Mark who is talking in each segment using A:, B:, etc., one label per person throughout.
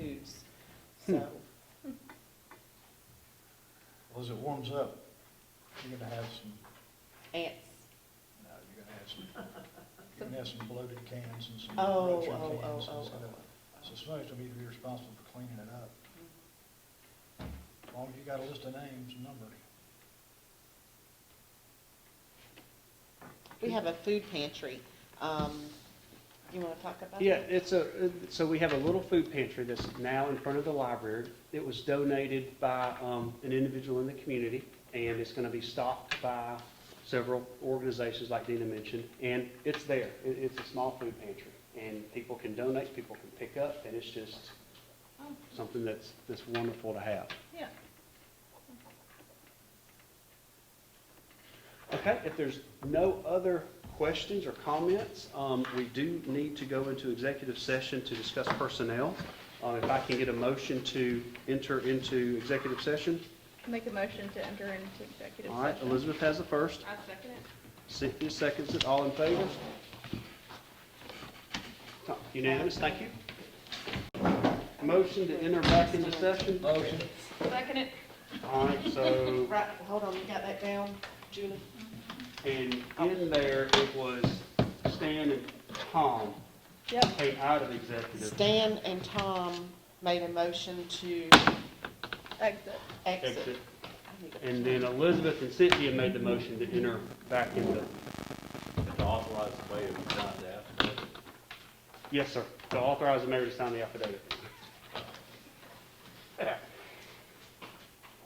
A: foods,
B: Hmm.
A: so.
C: Well, as it warms up, you're gonna have some,
A: Ants,
C: no, you're gonna have some, you're gonna have some bloated cans and some
A: Oh,
C: ruptured
A: oh, oh,
C: cans
A: oh,
C: and stuff. So somebody's gonna need to be responsible for cleaning it up. As long as you got a list of names and number.
A: we have a food pantry. Um, you wanna talk about that?
B: Yeah, it's a, so we have a little food pantry that's now in front of the library. It was donated by um, an individual in the community, and it's going to be stocked by several organizations like Dina mentioned, and it's there. It- It's a small food pantry, and people can donate, people can pick up, and it's just
A: Oh,
B: something that's, that's wonderful to have.
A: Yeah.
B: Okay, if there's no other questions or comments, um, we do need to go into executive session to discuss personnel. Uh, If I can get a motion to enter into executive session.
D: Make a motion to enter into executive session.
B: All right, Elizabeth has the first.
D: I'll second it.
B: Cynthia seconds it. All in favor? Unanimous, thank you. Motion to enter back into session.
C: Motion.
D: Second it.
B: All right, so
A: Right, hold on, you got that down, Julie?
B: And in there, it was Stan and Tom
A: Yep.
B: came out of executive.
A: Stan and Tom made a motion to
D: Exit.
A: exit.
B: exit. And then Elizabeth and Cynthia made the motion to enter back into,
E: to authorize the mayor to sign the affidavit.
B: yes, sir, to authorize the mayor to sign the affidavit.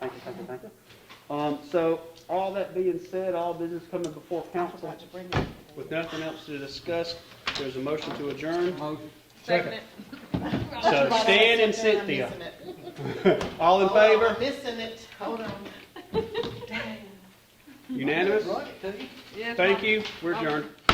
B: Thank you, thank you, thank you. Um, so, all that being said, all business coming before
A: I
B: council,
A: forgot to bring that.
B: with nothing else to discuss, there's a motion to adjourn.
D: Second it.
B: So Stan and Cynthia, all in favor?
A: Oh, Missing it, hold on.
B: Unanimous?
C: Right, Peggy?
B: Thank you, we're adjourned.